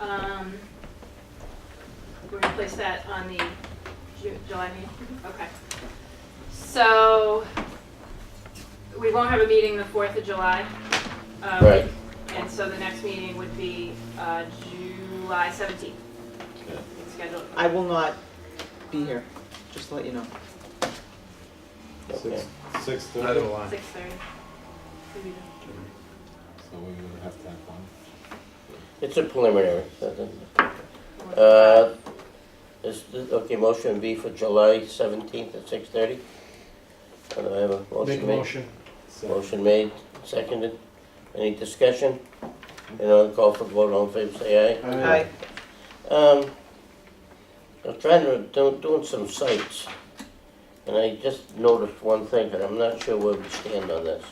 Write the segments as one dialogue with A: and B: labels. A: Um, We're gonna place that on the Ju- July meeting, okay. So, we won't have a meeting the fourth of July. um,
B: Right.
A: And so the next meeting would be uh, July seventeenth.
B: Yeah.
A: It's scheduled.
C: I will not be here, just to let you know.
B: Okay.
D: Six
E: Neither
D: thirty,
E: will I.
A: Six thirty.
D: so we would have to have one.
B: It's a preliminary. so it doesn't- Uh, is, the- okay, motion be for July seventeenth at six thirty? Do I have a
E: Make a
B: motion made?
E: motion.
D: So
B: Motion made, seconded. Any discussion? You know, call for vote, all in favor, say aye.
C: I,
B: Um, I'm trying to, do- doing some sites, and I just noticed one thing, and I'm not sure where we stand on this.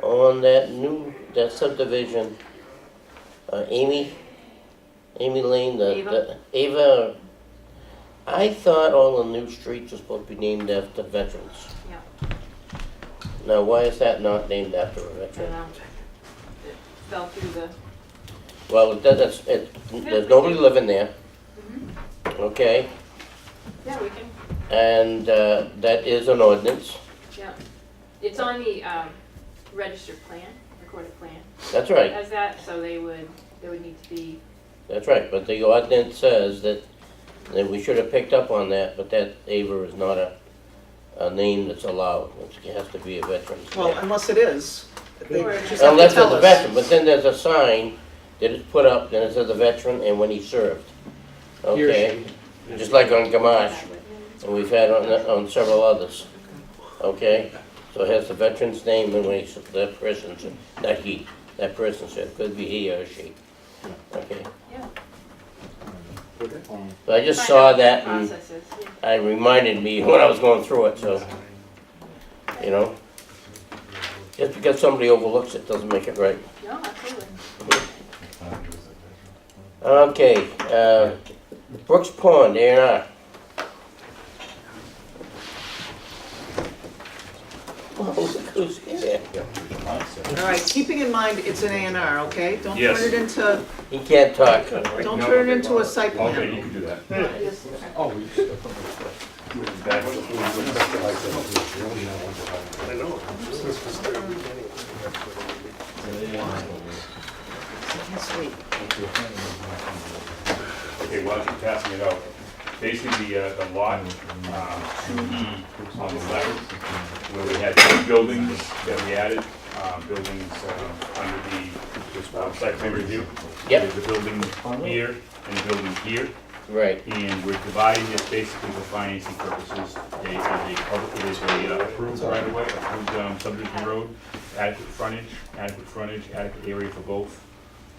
B: On that new, that subdivision, uh, Amy, Amy Lane, the- the, Ava, I thought all the new streets were supposed to be named after veterans.
A: Yeah.
B: Now, why is that not named after
A: I
B: a
A: don't
B: veteran?
A: know. It Fell through the,
B: Well, it doesn't, it, there's nobody living there, okay?
A: yeah, we can,
B: And uh, that is an ordinance,
A: yeah. It's on the um, registered plan, recorded plan.
B: that's right,
A: As that, so they would, there would need to be,
B: that's right, but the ordinance says that, that we should have picked up on that, but that Ava is not a, a name that's allowed, it has to be a veteran's
C: well,
B: name.
C: unless it is, they
A: Or-
C: just have to
B: Unless it's
C: tell
B: a
C: us.
B: veteran, but then there's a sign that is put up, and it says a veteran and when he served,
E: Here
B: okay?
E: she-
B: Just like on Gamache, and we've had on, on several others, okay? So it has the veteran's name and when he's, that person's, not he, that person's, it could be he or she. Okay,
D: um, put it on
B: but I just
A: Find
B: saw
A: out what the
B: that and
A: Process is, yeah.
B: it reminded me when I was going through it, so, you know? Just because somebody overlooks it doesn't make it right.
A: No, absolutely.
B: Okay, uh, Brooks Pond, A and R. Well, who's here?
C: All right, keeping in mind, it's an A and R, okay? Don't turn
F: Yes.
C: it into,
B: He can't talk.
C: don't turn it into a site
F: Okay,
C: plan.
F: you can do that.
A: Yes, okay.
D: Oh, we just.
C: Yes, wait.
F: Okay, well, I'm passing it out. Basically, the, uh, the lot, um, two E on the left, where we had two buildings that we added, uh, buildings, uh, under the, uh, site plan review.
B: Yep.
F: There's a building here and a building here,
B: Right,
F: and we're dividing this basically for financing purposes. It is a public, it is a uh, approved right of way, approved, um, subdivision road, adequate frontage, adequate frontage, adequate area for both.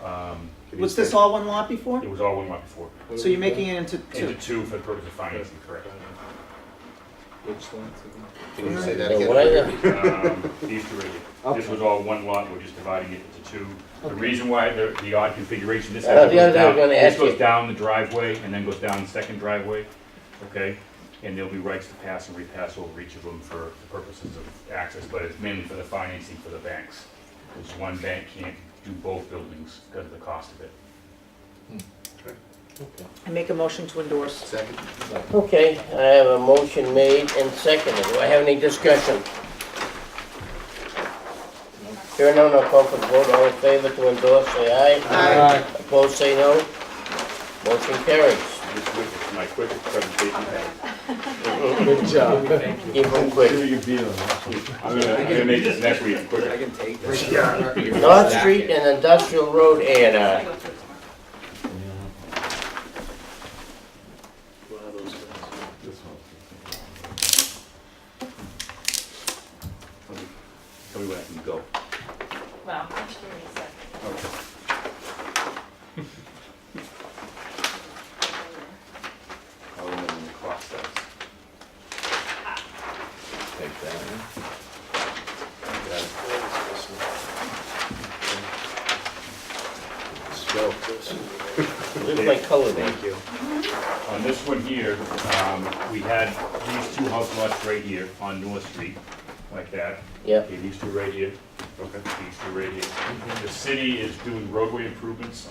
F: Um,
C: Was this all one lot before?
F: It was all one lot before.
C: So you're making it into two?
F: Into two for the purpose of financing, correct.
D: Which one?
G: Can you say that
B: now
G: again?
B: why the,
F: Um, These two right here. This
D: Okay.
F: was all one lot, we're just dividing it into two. The reason why the the odd configuration, this
B: Uh,
F: actually
B: the other
F: goes
B: day I was
F: down,
B: gonna
F: this
B: ask you.
F: goes down the driveway and then goes down the second driveway, okay? And there'll be rights to pass and repass over each of them for the purposes of access, but it's mainly for the financing for the banks. Because one bank can't do both buildings because of the cost of it.
C: I make a motion to endorse.
G: Second?
B: Okay, I have a motion made and seconded. Do I have any discussion? Here none, I'll call for the vote. All in favor to endorse, say aye.
C: Aye.
B: Opposed, say no. Motion carries.
F: Just quick, my quick presentation.
D: Good job.
B: Keep them quick.
F: I'm gonna, I'm gonna make this next week quicker.
G: can take that.
B: North Street and Industrial Road A and
A: I
B: R.
A: go through it tomorrow.
F: Tell me when I can go.
A: Well, I'm sure he said.
F: I'll remember when the clock starts.
D: Take that.
B: Look at my color there.
F: On this one here, um, we had these two house lots right here on North Street, like that.
B: Yep.
F: Okay, these two right here. Okay. These two right here. The city is doing roadway improvements